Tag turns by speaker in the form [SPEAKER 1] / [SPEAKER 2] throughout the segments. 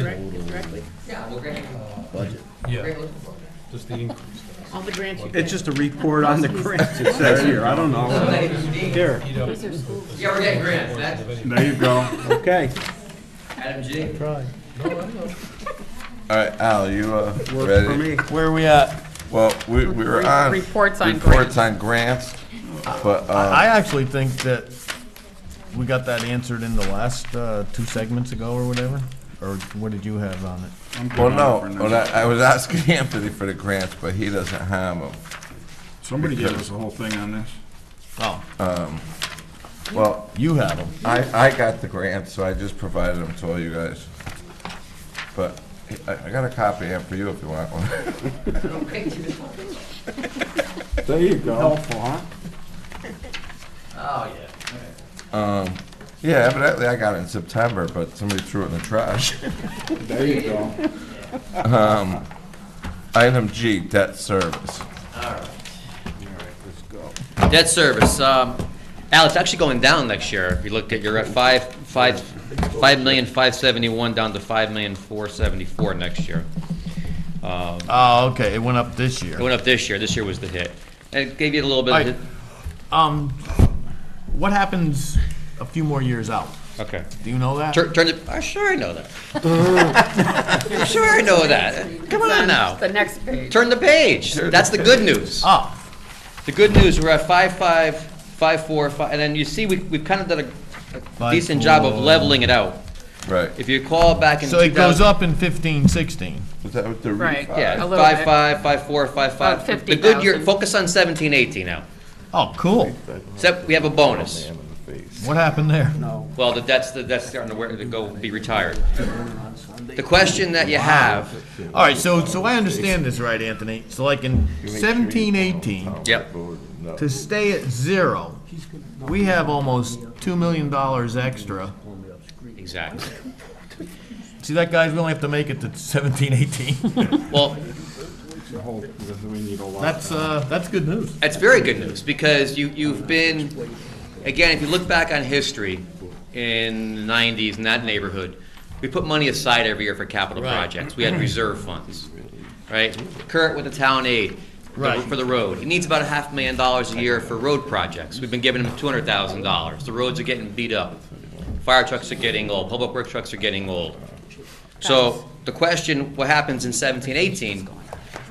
[SPEAKER 1] Direct- Directly,
[SPEAKER 2] Yeah, well, Greg,
[SPEAKER 3] budget.
[SPEAKER 2] Greg
[SPEAKER 4] Yeah,
[SPEAKER 2] looking for it.
[SPEAKER 4] just the increase.
[SPEAKER 1] all the grants you've been.
[SPEAKER 5] It's just a report on the grants, it says here, I don't
[SPEAKER 2] Those are
[SPEAKER 5] know.
[SPEAKER 2] the unique-
[SPEAKER 5] Here,
[SPEAKER 4] You know,
[SPEAKER 1] Those are school-
[SPEAKER 2] Yeah, we're getting grants, that's
[SPEAKER 5] there you go, okay.
[SPEAKER 2] Adam G.
[SPEAKER 3] All right, Al, you uh,
[SPEAKER 5] Works for
[SPEAKER 3] ready?
[SPEAKER 5] me.
[SPEAKER 6] Where are we at?
[SPEAKER 3] Well, we we were
[SPEAKER 1] Re-
[SPEAKER 3] on.
[SPEAKER 1] reports on grants.
[SPEAKER 3] Reports on grants, but
[SPEAKER 6] I
[SPEAKER 3] uh,
[SPEAKER 6] actually think that we got that answered in the last, uh, two segments ago or whatever, or what did you have on it?
[SPEAKER 3] well, no, well, I I was asking Anthony for the grants, but he doesn't have them.
[SPEAKER 7] Somebody gave us the whole thing on this.
[SPEAKER 6] Oh,
[SPEAKER 3] Well,
[SPEAKER 6] you have them.
[SPEAKER 3] I, I got the grant, so I just provided them to all you guys. But I, I got a copy in for you if you want one.
[SPEAKER 2] Okay, to this one.
[SPEAKER 5] There you go. Helpful, huh?
[SPEAKER 2] Oh, yeah.
[SPEAKER 3] Yeah, evidently I got it in September, but somebody threw it in the trash.
[SPEAKER 5] There you go.
[SPEAKER 3] Item G, debt service.
[SPEAKER 8] Debt service, um, Al, it's actually going down next year. If you look at, you're at five, five, five million, five seventy-one, down to five million, four seventy-four next year. Um,
[SPEAKER 6] Oh, okay, it went up this
[SPEAKER 8] It
[SPEAKER 6] year.
[SPEAKER 8] went up this year, this year was the hit. And it gave you a little bit
[SPEAKER 6] Alright.
[SPEAKER 8] of,
[SPEAKER 6] Um, what happens a few more years out?
[SPEAKER 8] hit. okay.
[SPEAKER 6] Do you know that?
[SPEAKER 8] Turn, turn it, oh, sure I know that. I'm Sure I know that. Come on now.
[SPEAKER 1] The next page.
[SPEAKER 8] Turn the page. That's the good news.
[SPEAKER 6] Oh,
[SPEAKER 8] The good news, we're at five, five, five, four, five, and then you see, we, we've kind of done a- a
[SPEAKER 6] Five,
[SPEAKER 8] decent job of
[SPEAKER 6] four.
[SPEAKER 8] leveling it out.
[SPEAKER 3] Right.
[SPEAKER 8] If you recall back in
[SPEAKER 6] so it
[SPEAKER 8] 2000
[SPEAKER 6] goes up in fifteen, sixteen.
[SPEAKER 3] Was that with the
[SPEAKER 1] Right,
[SPEAKER 3] refi?
[SPEAKER 8] Yeah,
[SPEAKER 1] A little
[SPEAKER 8] five,
[SPEAKER 1] bit.
[SPEAKER 8] five, five, four, five, five.
[SPEAKER 1] About
[SPEAKER 8] The good year,
[SPEAKER 1] 50,000.
[SPEAKER 8] focus on seventeen, eighteen now.
[SPEAKER 6] Oh, cool.
[SPEAKER 8] Except we have a
[SPEAKER 3] Oh,
[SPEAKER 8] bonus.
[SPEAKER 6] What happened there?
[SPEAKER 8] Well, the debt's, the debt's starting to wear, to go, be retired. The question that you have,
[SPEAKER 6] All right, so, so I understand this right, Anthony. So like in seventeen, eighteen,
[SPEAKER 8] yep,
[SPEAKER 6] to stay at zero, we have almost two million dollars extra.
[SPEAKER 8] exactly.
[SPEAKER 6] See, that guy's, we only have to make it to seventeen, eighteen.
[SPEAKER 8] Well,
[SPEAKER 7] The whole, because we need a lot.
[SPEAKER 6] That's, uh, that's good news.
[SPEAKER 8] That's very good news, because you, you've been, again, if you look back on history in the nineties in that neighborhood, we put money aside every year for capital
[SPEAKER 6] Right.
[SPEAKER 8] projects. We had reserve funds, right? Kurt with the town aid
[SPEAKER 6] Right.
[SPEAKER 8] for the road. He needs about a half million dollars a year for road projects. We've been giving him two hundred thousand dollars. The roads are getting beat up. Fire trucks are getting old, public works trucks are getting old. So the question, what happens in seventeen, eighteen?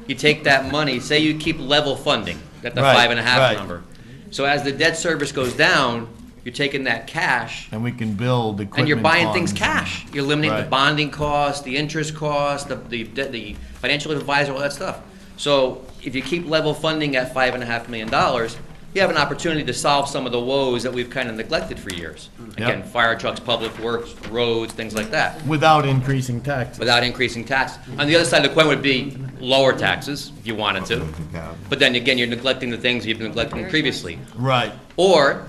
[SPEAKER 8] You take that money, say you keep level funding, at the
[SPEAKER 6] Right,
[SPEAKER 8] five and a half
[SPEAKER 6] right.
[SPEAKER 8] number. So as the debt service goes down, you're taking that cash
[SPEAKER 6] And we can build equipment.
[SPEAKER 8] and you're buying
[SPEAKER 6] funds.
[SPEAKER 8] things cash. You're eliminating the
[SPEAKER 6] Right.
[SPEAKER 8] bonding cost, the interest cost, the, the, debt- the financial advisor, all that stuff. So if you keep level funding at five and a half million dollars, you have an opportunity to solve some of the woes that we've kind of neglected for years.
[SPEAKER 6] Mm.
[SPEAKER 8] Again, fire trucks, public works, roads, things like that,
[SPEAKER 6] Without increasing taxes.
[SPEAKER 8] without increasing tax. On the other side of the coin would be lower taxes, if you wanted to. But then again, you're neglecting the things you've been neglecting previously.
[SPEAKER 6] Right.
[SPEAKER 8] Or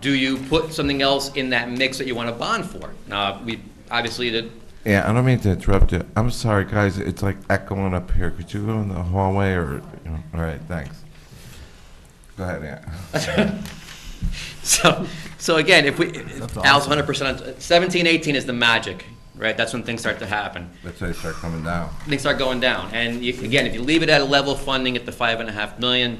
[SPEAKER 8] do you put something else in that mix that you want to bond for? Now, we, obviously, the,
[SPEAKER 3] Yeah, I don't mean to interrupt you. I'm sorry, guys. It's like echoing up here. Could you go in the hallway or, you know, all right, thanks. Go ahead, Ann.
[SPEAKER 8] so, so again, if we, if
[SPEAKER 6] That's
[SPEAKER 8] Al's
[SPEAKER 6] awesome.
[SPEAKER 8] hundred percent, seventeen, eighteen is the magic, right? That's when things start to happen.
[SPEAKER 3] That's why they start coming down.
[SPEAKER 8] Things start going down. And you, again, if you leave it at a level of funding at the five and a half million,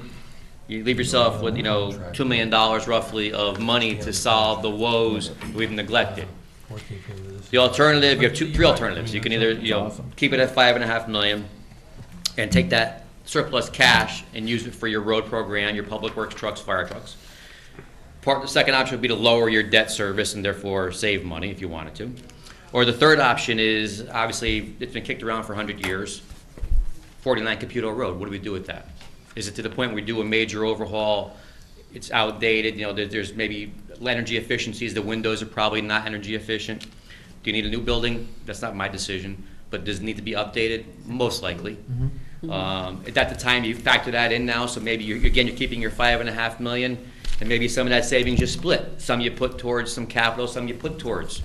[SPEAKER 8] you leave yourself with, you know, two million dollars roughly of money to solve the woes we've neglected. The alternative, you have two, three alternatives. You can either, you know, keep it at five and a half million and take that surplus cash and use it for your road program, your public works trucks, fire trucks. Part, the second option would be to lower your debt service and therefore save money if you wanted to. Or the third option is, obviously, it's been kicked around for hundred years, forty-nine Caputo Road, what do we do with that? Is it to the point where we do a major overhaul, it's outdated, you know, there, there's maybe energy efficiencies, the windows are probably not energy efficient? Do you need a new building? That's not my decision, but does it need to be updated? Most likely. Um, at that time, you factor that in now, so maybe you're, again, you're keeping your five and a half million, and maybe some of that savings you split. Some you put towards some capital, some you put towards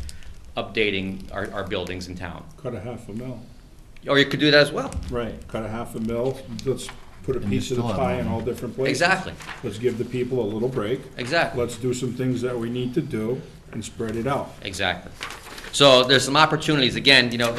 [SPEAKER 8] updating our, our buildings in town.
[SPEAKER 7] Cut a half a mil.
[SPEAKER 8] Or you could do that as well.
[SPEAKER 7] Right. Cut a half a mil, let's put a
[SPEAKER 6] you
[SPEAKER 7] piece of the
[SPEAKER 6] still have
[SPEAKER 7] pie in
[SPEAKER 6] money.
[SPEAKER 7] all different places.
[SPEAKER 8] Exactly,
[SPEAKER 7] Let's give the people a little break.
[SPEAKER 8] exactly,
[SPEAKER 7] Let's do some things that we need to do and spread it out.
[SPEAKER 8] exactly. So there's some opportunities, again, you know,